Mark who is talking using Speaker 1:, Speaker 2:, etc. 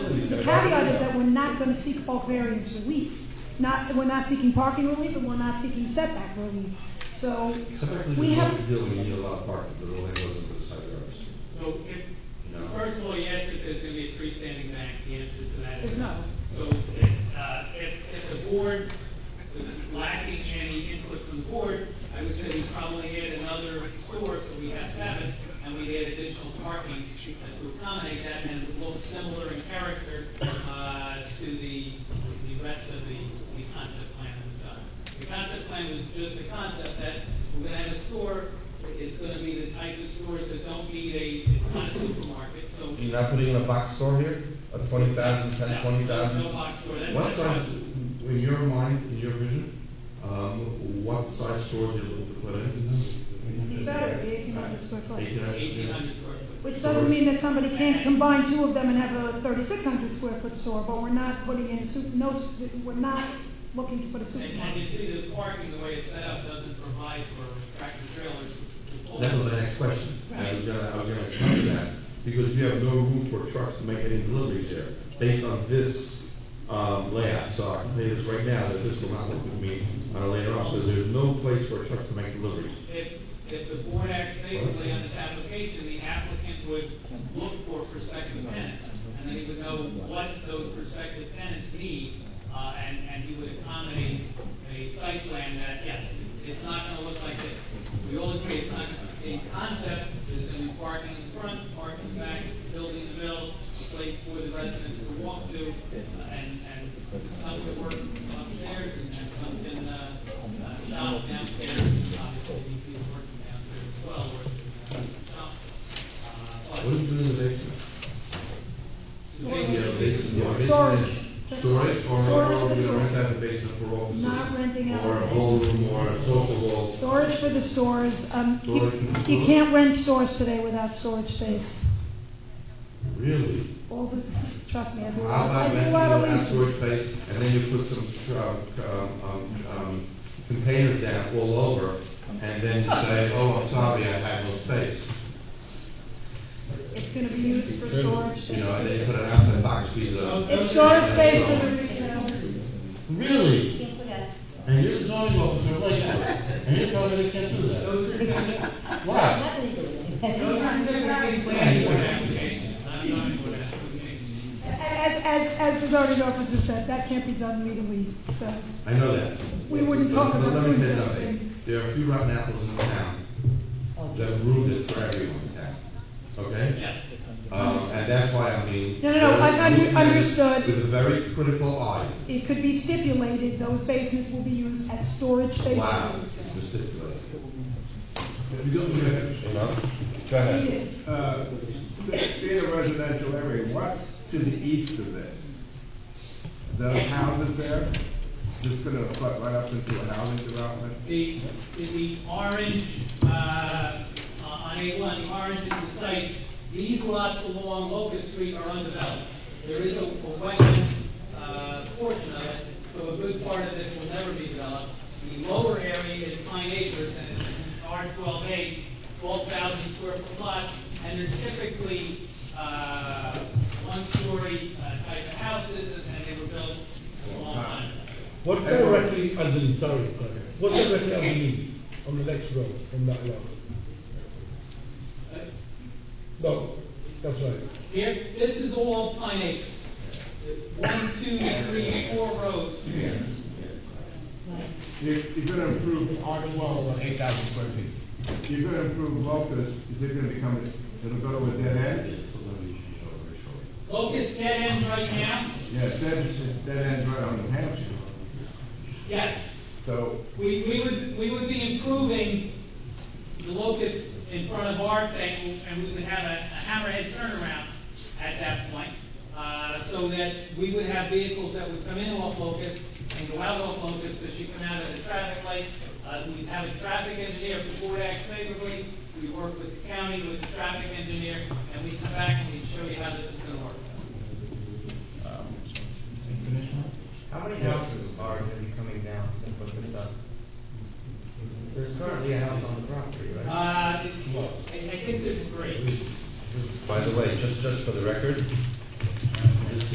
Speaker 1: caveat is that we're not gonna seek bulk variance relief. Not, we're not seeking parking relief, and we're not seeking setback relief. So,
Speaker 2: Typically,
Speaker 1: we
Speaker 2: we
Speaker 1: have,
Speaker 2: don't deal, we need a lot of parking, but the landlord doesn't put a side yard restriction.
Speaker 3: So if,
Speaker 2: No.
Speaker 3: first of all, you asked if there's gonna be a freestanding bank, the answer to that is
Speaker 1: There's
Speaker 3: no.
Speaker 1: not.
Speaker 3: So if, uh, if, if the board was lacking any input from the board, I would say we probably add another store, so we have seven, and we add additional parking uh, to accommodate that, and it looks similar in character, uh, to the, the rest of the, the concept plan that was done. The concept plan was just the concept that we're gonna have a store, it's gonna be the type of stores that don't need a, it's not a supermarket, so.
Speaker 2: You're not putting in a box store here, a twenty thousand,
Speaker 3: No,
Speaker 2: ten,
Speaker 3: no,
Speaker 2: twenty thousand?
Speaker 3: no box store. That-
Speaker 2: What
Speaker 3: that's
Speaker 2: size,
Speaker 3: right.
Speaker 2: in your mind, in your vision, um, what size stores you're looking to put in?
Speaker 1: he said it, eighteen hundred square foot.
Speaker 2: Eighteen hundred.
Speaker 3: Eighteen hundred square foot.
Speaker 1: Which doesn't mean that somebody can't combine two of them and have a thirty-six hundred square foot store, but we're not putting in soup, no, s- we're not looking to put a
Speaker 3: And, and you
Speaker 1: supermarket.
Speaker 3: see the parking, the way it's set up, doesn't provide for tractor trailers. to pull.
Speaker 2: That was my next question. I was gonna, I was gonna come to that, because you have no room for trucks to make any deliveries here, based on this, um, layout. So I can tell you this right now, that this will not work with me, uh, later on, because there's no place for trucks to make deliveries.
Speaker 3: If, if the board acts favorably on this application, the applicant would look for prospective tenants, and then he would know what those prospective tenants need, uh, and, and he would accommodate a site plan that, yes, it's not gonna look like this. We all agree, it's not, the concept is gonna be parking in front, parking in back, building in the middle, a place for the residents to walk to, uh, and, and some that works upstairs, and some can, uh, uh, shop downstairs, obviously, if you work downstairs as well, or shop. Uh,
Speaker 2: What do you do in the basement?
Speaker 3: but-
Speaker 2: You have a basement, you have a basement.
Speaker 1: Storage.
Speaker 2: Storage, or, or
Speaker 1: Storage
Speaker 2: we're
Speaker 1: for the
Speaker 2: gonna rent
Speaker 1: stores.
Speaker 2: out the basement for offices.
Speaker 1: Not renting out
Speaker 2: Or a
Speaker 1: the
Speaker 2: ballroom, or a social hall.
Speaker 1: Storage for the stores, um, you,
Speaker 2: Storage for the
Speaker 1: you
Speaker 2: stores.
Speaker 1: can't rent stores today without storage space.
Speaker 2: Really?
Speaker 1: All this, trust me, I do a
Speaker 2: How
Speaker 1: lot,
Speaker 2: about
Speaker 1: I do a
Speaker 2: renting
Speaker 1: lot
Speaker 2: out
Speaker 1: of
Speaker 2: that
Speaker 1: leasing.
Speaker 2: storage space, and then you put some, tr- um, um, um, containers down all over, and then you say, oh, I'm sorry, I have no space.
Speaker 1: It's gonna be used for storage
Speaker 2: You
Speaker 1: space.
Speaker 2: know, and then you put an outside box piece of.
Speaker 1: It's storage space for the retail.
Speaker 2: Really?
Speaker 4: Can't put out.
Speaker 2: And you're the zoning officer, like, and you're telling me they can't do that?
Speaker 3: Those are typically,
Speaker 2: Why?
Speaker 4: Nothing to do with it.
Speaker 3: those are typically planning board applications, not zoning board applications.
Speaker 1: As, as, as the zoning officer said, that can't be done legally, so.
Speaker 2: I know that.
Speaker 1: We wouldn't talk
Speaker 2: But
Speaker 1: about
Speaker 2: Let me
Speaker 1: doing
Speaker 2: say
Speaker 1: such
Speaker 2: something.
Speaker 1: things.
Speaker 2: There are a few rotten apples in town that ruined it for everyone in town, okay?
Speaker 3: Yes.
Speaker 2: Um, and that's why I mean.
Speaker 1: No, no, no, I- I under- understood.
Speaker 2: With a very critical eye.
Speaker 1: It could be stipulated, those basements will be used as storage space.
Speaker 2: Wow,
Speaker 1: for
Speaker 2: just stipulated,
Speaker 5: You go to,
Speaker 2: you know? Go
Speaker 1: retail.
Speaker 2: ahead.
Speaker 5: uh, being a residential area, what's to the east of this? Those houses there, just gonna butt right up into a housing development?
Speaker 3: The, the orange, uh, on A one, the orange is the site, these lots along Locust Street are undeveloped. There is a, a wetland, uh, portion of it, so a good part of this will never be developed. The lower area is pine acres, and it's R twelve A, twelve thousand square foot lots, and they're typically, uh, one-story uh, type of houses, and they were built a long time ago.
Speaker 6: What's directly underneath, sorry, sorry. what's directly underneath on the next row from that lot? No, that's right.
Speaker 3: Here, this is all pine acres. One, two, three, four rows.
Speaker 5: You're, you're gonna improve R twelve,
Speaker 7: eight thousand square feet.
Speaker 5: you're gonna improve Locust, is it gonna become, a- it'll go to a dead end?
Speaker 3: Locust dead end right now?
Speaker 5: Yeah, dead, dead end's right on New Hampshire,
Speaker 3: Yes.
Speaker 5: so,
Speaker 3: We, we would, we would be improving the locust in front of our thing, and we would have a a hammerhead turnaround at that point. Uh, so that we would have vehicles that would come in off locust and go out off locust, because you come out of the traffic light. Uh, we'd have a traffic engineer, if the board acts favorably, we work with the county, with the traffic engineer, and we come back and we show you how this is gonna work.
Speaker 8: How many houses are gonna be coming down to put this up? There's currently a house on the property, right?
Speaker 3: Uh, I, I think there's three.
Speaker 2: By the way, just, just for the record,